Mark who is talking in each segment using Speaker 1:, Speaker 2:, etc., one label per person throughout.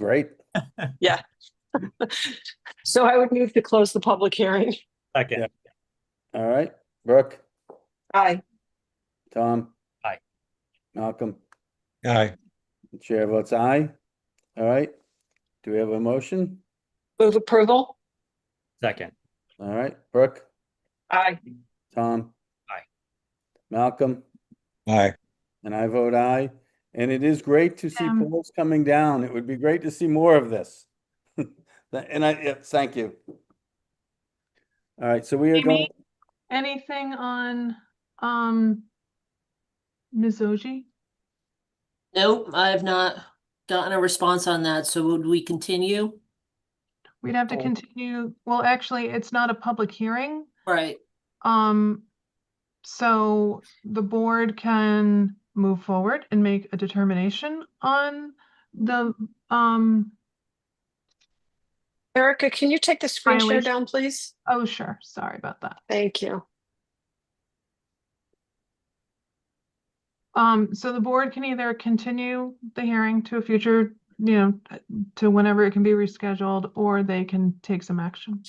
Speaker 1: right?
Speaker 2: So I would move to close the public hearing.
Speaker 3: Second,
Speaker 1: All right, Brooke,
Speaker 2: Aye.
Speaker 1: Tom.
Speaker 3: Aye.
Speaker 1: Malcolm,
Speaker 4: Aye,
Speaker 1: the chair votes aye. All right, do we have a motion?
Speaker 2: Move approval?
Speaker 3: second,
Speaker 1: All right, Brooke,
Speaker 2: Aye.
Speaker 1: Tom.
Speaker 3: Aye.
Speaker 1: Malcolm,
Speaker 4: aye.
Speaker 1: and I vote aye. And it is great to see
Speaker 5: Um,
Speaker 1: polls coming down. It would be great to see more of this. And I, yeah, thank you. All right, so we are going,
Speaker 5: Amy, anything on, um, Mizoji?
Speaker 6: Nope, I have not gotten a response on that, so would we continue?
Speaker 5: We'd have to continue, well, actually, it's not a public hearing.
Speaker 6: Right,
Speaker 5: Um, so the board can move forward and make a determination on the, um,
Speaker 2: Erica, can you take the screen share
Speaker 5: Violation.
Speaker 2: down, please?
Speaker 5: oh, sure, sorry about that.
Speaker 2: Thank you.
Speaker 5: Um, so the board can either continue the hearing to a future, you know, to whenever it can be rescheduled, or they can take some action.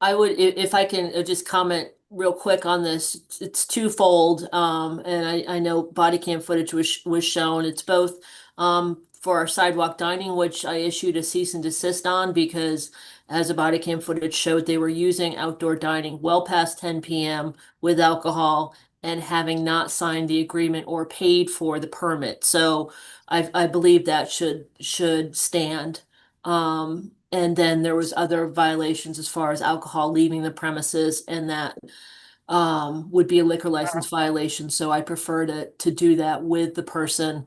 Speaker 6: I would, i- if I can uh, just comment real quick on this, it's twofold, um, and I, I know body cam footage was, sh- was shown, it's both, um, for our sidewalk dining, which I issued a cease and desist on because as the body cam footage showed, they were using outdoor dining well past ten PM with alcohol and having not signed the agreement or paid for the permit, so I, I believe that should, should stand. Um, and then there was other violations as far as alcohol leaving the premises and that um would be a liquor license violation, so I prefer to to do that with the person.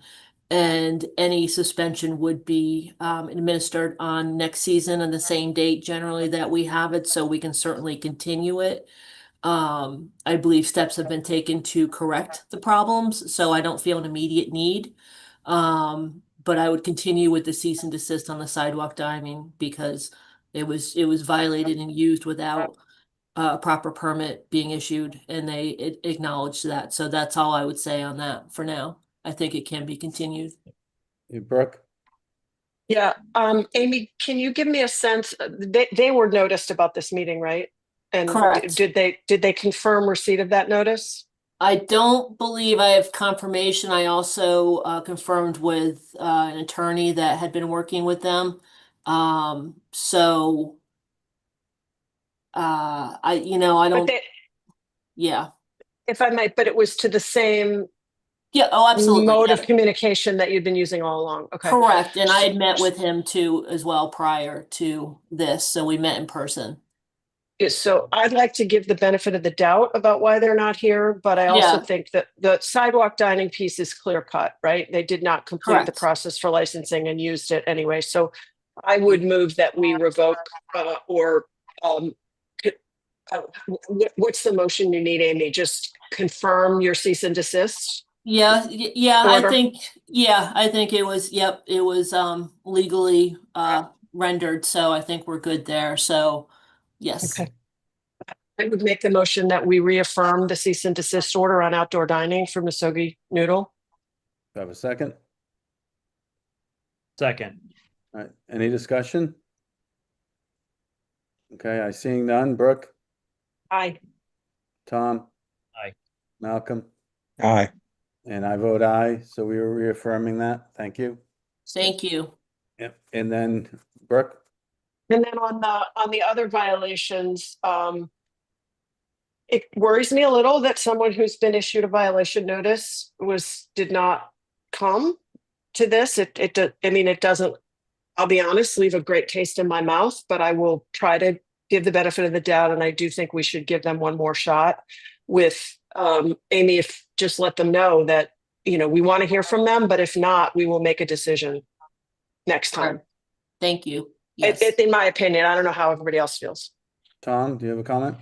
Speaker 6: And any suspension would be um administered on next season on the same date generally that we have it, so we can certainly continue it. Um, I believe steps have been taken to correct the problems, so I don't feel an immediate need. Um, but I would continue with the cease and desist on the sidewalk diving because it was, it was violated and used without a proper permit being issued and they a- acknowledged that. So that's all I would say on that for now. I think it can be continued.
Speaker 1: Brooke,
Speaker 2: Yeah, um, Amy, can you give me a sense, uh, they, they were noticed about this meeting, right? And d-
Speaker 6: Correct.
Speaker 2: did they, did they confirm receipt of that notice?
Speaker 6: I don't believe I have confirmation. I also uh, confirmed with uh, an attorney that had been working with them. Um, so uh, I, you know, I
Speaker 2: But
Speaker 6: don't,
Speaker 2: they,
Speaker 6: yeah.
Speaker 2: if I might, but it was to the same
Speaker 6: Yeah, oh, absolutely.
Speaker 2: mode
Speaker 6: yeah.
Speaker 2: of communication that you'd been using all along, okay?
Speaker 6: Correct, and I had met with him too as well prior to this, so we met in person.
Speaker 2: Yeah, So I'd like to give the benefit of the doubt about why they're not here, but I also
Speaker 6: Yeah.
Speaker 2: think that the sidewalk dining piece is clear cut, right? They did not complete the
Speaker 6: Correct.
Speaker 2: process for licensing and used it anyway, so I would move that we revoke uh, or um c- uh, wh- wh- what's the motion you need, Amy? Just confirm your cease and desist?
Speaker 6: Yeah, y- yeah, I
Speaker 2: Order.
Speaker 6: think, yeah, I think it was, yep, it was um legally uh rendered, so I think we're good there, so yes.
Speaker 2: Okay. I would make the motion that we reaffirm the cease and desist order on outdoor dining for Misogi Noodle.
Speaker 1: do I have a second?
Speaker 3: second,
Speaker 1: All right, Uh, any discussion? Okay, I seeing none. Brooke,
Speaker 2: Aye.
Speaker 1: Tom.
Speaker 3: Aye.
Speaker 1: Malcolm,
Speaker 4: Aye,
Speaker 1: and I vote aye, so we are reaffirming that. Thank you.
Speaker 6: Thank you.
Speaker 1: Yep. And then Brooke,
Speaker 2: And then on the, on the other violations, um, it worries me a little that someone who's been issued a violation notice was, did not come to this. It, it, do- I mean, it doesn't, I'll be honest, leave a great taste in my mouth, but I will try to give the benefit of the doubt. And I do think we should give them one more shot with, um, Amy, if, just let them know that, you know, we want to hear from them, but if not, we will make a decision next time.
Speaker 6: Sure. Thank you.
Speaker 2: It,
Speaker 6: Yes,
Speaker 2: it, in my opinion, I don't know how everybody else feels.
Speaker 1: Tom, do you have a comment?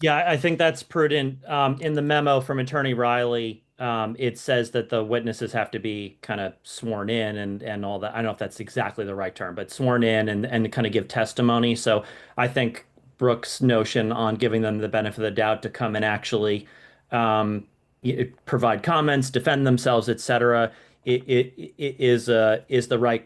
Speaker 3: yeah, I- I think that's prudent. Um, in the memo from Attorney Riley, um, it says that the witnesses have to be kind of sworn in and and all that. I don't know if that's exactly the right term, but sworn in and and kind of give testimony. So I think Brooks' notion on giving them the benefit of the doubt to come and actually um, y- provide comments, defend themselves, et cetera, i- i- i- is uh, is the right